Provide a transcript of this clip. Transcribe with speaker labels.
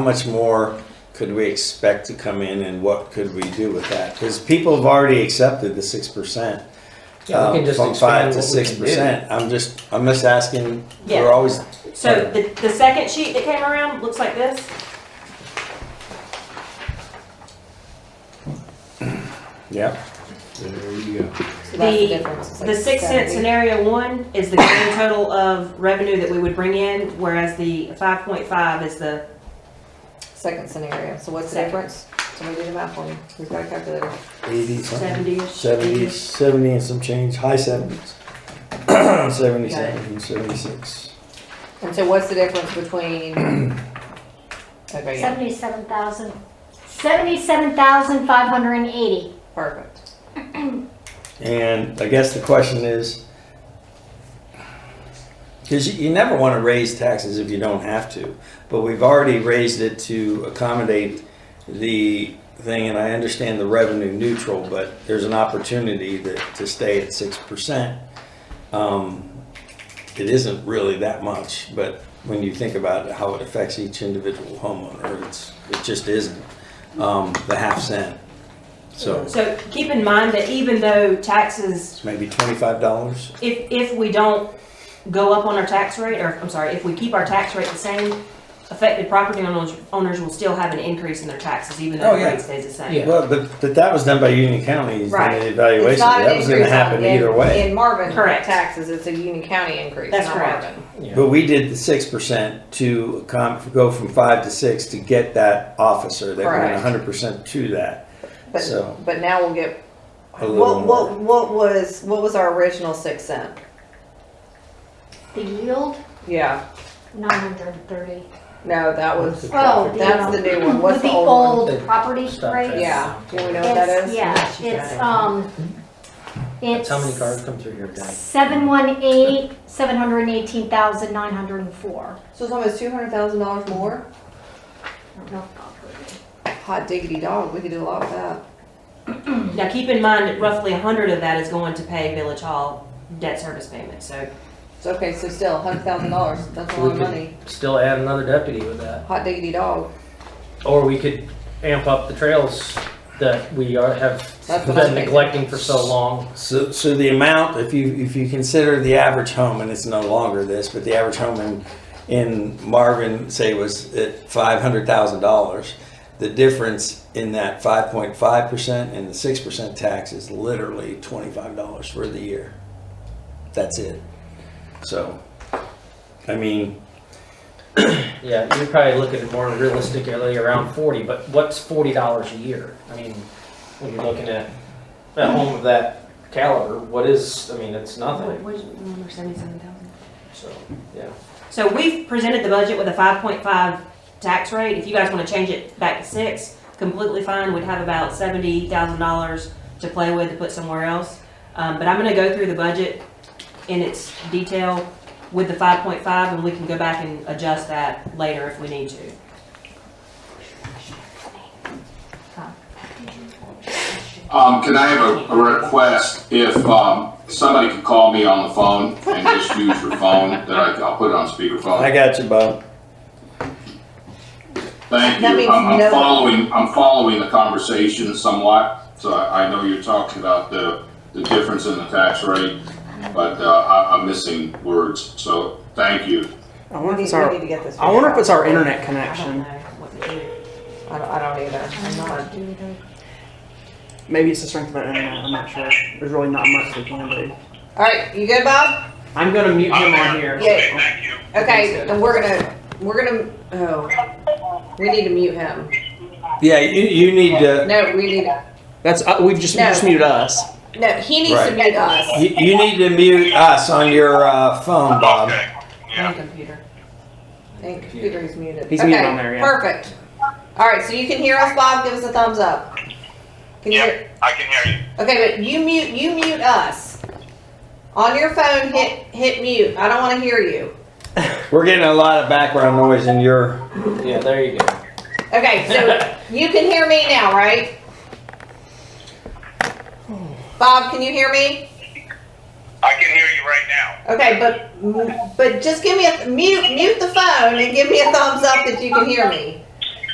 Speaker 1: How much more could we expect to come in and what could we do with that? Because people have already accepted the six percent. um,
Speaker 2: Yeah, we can just
Speaker 1: From five
Speaker 2: expand
Speaker 1: to
Speaker 2: what we
Speaker 1: six
Speaker 2: can do.
Speaker 1: percent. I'm just, I'm just asking,
Speaker 3: Yeah.
Speaker 1: we're always,
Speaker 3: So the, the second sheet that came around looks like this.
Speaker 1: yeah,
Speaker 2: There you go.
Speaker 4: So that's
Speaker 3: The-
Speaker 4: difference, it's
Speaker 3: The
Speaker 4: like
Speaker 3: six cent
Speaker 4: 70.
Speaker 3: scenario one is the grand total of revenue that we would bring in, whereas the five point five is the,
Speaker 4: Second scenario, so what's the
Speaker 3: Second.
Speaker 4: difference? Somebody do the math for me, we've got a calculator.
Speaker 1: eighty something.
Speaker 3: 70-ish.
Speaker 1: Seventy, seventy and some change, high seventies. Seventy-seven, seventy-six.
Speaker 4: And so what's the difference between? Okay, yeah,
Speaker 5: Seventy-seven thousand, seventy-seven thousand five hundred and eighty.
Speaker 4: perfect.
Speaker 1: And I guess the question is, because you, you never want to raise taxes if you don't have to, but we've already raised it to accommodate the thing, and I understand the revenue neutral, but there's an opportunity that, to stay at six percent. Um, it isn't really that much, but when you think about how it affects each individual homeowner, it's, it just isn't, um, the half cent. So
Speaker 3: so keep in mind that even though taxes,
Speaker 1: it's maybe twenty-five dollars.
Speaker 3: if, if we don't go up on our tax rate, or I'm sorry, if we keep our tax rate the same, affected property owners, owners will still have an increase in their taxes, even
Speaker 1: Oh,
Speaker 3: though the
Speaker 1: yeah.
Speaker 3: rate stays the same.
Speaker 2: Yeah.
Speaker 1: Well, but, but that was done by Union County's
Speaker 3: Right.
Speaker 1: and the
Speaker 4: It's
Speaker 1: evaluation.
Speaker 4: not an
Speaker 1: That was gonna
Speaker 4: increase on-
Speaker 1: happen
Speaker 4: in-
Speaker 1: either way.
Speaker 4: In Marvin
Speaker 3: Correct.
Speaker 4: taxes, it's a Union County increase,
Speaker 3: That's
Speaker 4: not
Speaker 3: correct.
Speaker 4: Marvin.
Speaker 1: But we did the six percent to com, go from five to six to get that officer. They went
Speaker 4: Correct.
Speaker 1: hundred percent to that. So-
Speaker 4: But, but now we'll get,
Speaker 1: A little
Speaker 4: what, what, what was, what was our original six cent?
Speaker 5: The yield,
Speaker 4: Yeah,
Speaker 5: nine hundred and thirty.
Speaker 4: no, that was,
Speaker 5: Oh,
Speaker 4: that's the new one, what's
Speaker 5: with
Speaker 4: the old
Speaker 2: one?
Speaker 5: old property
Speaker 2: Stop
Speaker 5: rate?
Speaker 2: that.
Speaker 4: Yeah, do we know what that
Speaker 5: It's,
Speaker 4: is?
Speaker 5: yeah,
Speaker 2: She got
Speaker 5: it's,
Speaker 2: it.
Speaker 3: uh,
Speaker 5: um,
Speaker 2: That's
Speaker 5: it's
Speaker 2: how many cars come through here a day?
Speaker 5: seven one eight, seven hundred and eighteen thousand nine hundred and four.
Speaker 4: So it's almost two hundred thousand dollars more?
Speaker 5: I don't know if I've heard it.
Speaker 4: Hot diggity dog, we could do a lot with that.
Speaker 3: Now, keep in mind that roughly a hundred of that is going to pay Village Hall debt service payments, so
Speaker 4: So, Okay, so still, hundred thousand dollars, that's a
Speaker 2: We
Speaker 4: lot of
Speaker 2: could-
Speaker 4: money.
Speaker 2: Still add another deputy with that.
Speaker 4: Hot diggity dog.
Speaker 2: Or we could amp up the trails that we are, have
Speaker 4: That's what I'm
Speaker 2: been
Speaker 4: thinking.
Speaker 2: neglecting for so long.
Speaker 1: So, so the amount, if you, if you consider the average home, and it's no longer this, but the average home in, in Marvin, say, was at five hundred thousand dollars. The difference in that five point five percent and the six percent tax is literally twenty-five dollars for the year. That's it. So, I mean,
Speaker 2: Yeah, you're probably looking at more realistically around forty, but what's forty dollars a year? I mean, when you're looking at a home of that caliber, what is, I mean, it's nothing,
Speaker 3: What is it, number seventy-seven thousand?
Speaker 2: so, yeah.
Speaker 3: So we've presented the budget with a five point five tax rate. If you guys wanna change it back to six, completely fine. We'd have about seventy thousand dollars to play with to put somewhere else. Um, but I'm gonna go through the budget in its detail with the five point five and we can go back and adjust that later if we need to.
Speaker 6: Um, can I have a, a request if, um, somebody could call me on the phone and just use your phone, that I, I'll put it on
Speaker 1: I
Speaker 6: speakerphone.
Speaker 1: got you, Bob.
Speaker 6: Thank
Speaker 4: That means
Speaker 6: you. I'm,
Speaker 4: no-
Speaker 6: I'm following, I'm following the conversation somewhat, so I, I know you're talking about the, the difference in the tax rate, but, uh, I, I'm missing words, so thank you.
Speaker 7: I
Speaker 4: We
Speaker 7: wonder if
Speaker 4: need,
Speaker 7: it's
Speaker 4: we need
Speaker 7: our.
Speaker 4: to get this.
Speaker 7: I wonder if it's our
Speaker 4: figured out.
Speaker 7: internet
Speaker 3: I don't know
Speaker 7: connection.
Speaker 3: what to do.
Speaker 4: I don't, I don't either. I'm not.
Speaker 7: Maybe it's the strength of our internet. I'm not sure. There's really not much we can do.
Speaker 4: All right, you good, Bob?
Speaker 2: I'm gonna mute him on here.
Speaker 4: Yeah.
Speaker 6: thank you.
Speaker 4: Okay, and we're gonna, we're gonna, oh, we need to mute him.
Speaker 1: Yeah, you, you need to,
Speaker 4: No, we need, to-
Speaker 7: That's uh, we've just, we
Speaker 4: No.
Speaker 7: just muted us.
Speaker 4: no, he needs to
Speaker 1: Right.
Speaker 4: mute us.
Speaker 1: you, you need to mute us on your, uh, phone, Bob.
Speaker 3: Hey, computer.
Speaker 4: And computer's muted.
Speaker 7: He's muted
Speaker 4: Okay,
Speaker 7: on there, yeah.
Speaker 4: Perfect. All right, so you can hear us, Bob? Give us a thumbs up. Can you hear?
Speaker 6: I can hear you.
Speaker 4: Okay, but you mute, you mute us. On your phone, hit, hit mute. I don't wanna hear you.
Speaker 1: We're getting a lot of background noise in your
Speaker 2: Yeah, there you go.
Speaker 4: Okay, so you can hear me now, right? Bob, can you hear me?
Speaker 6: I can hear you right now.
Speaker 4: Okay, but but just give me a mute mute the phone and give me a thumbs up that you can hear me.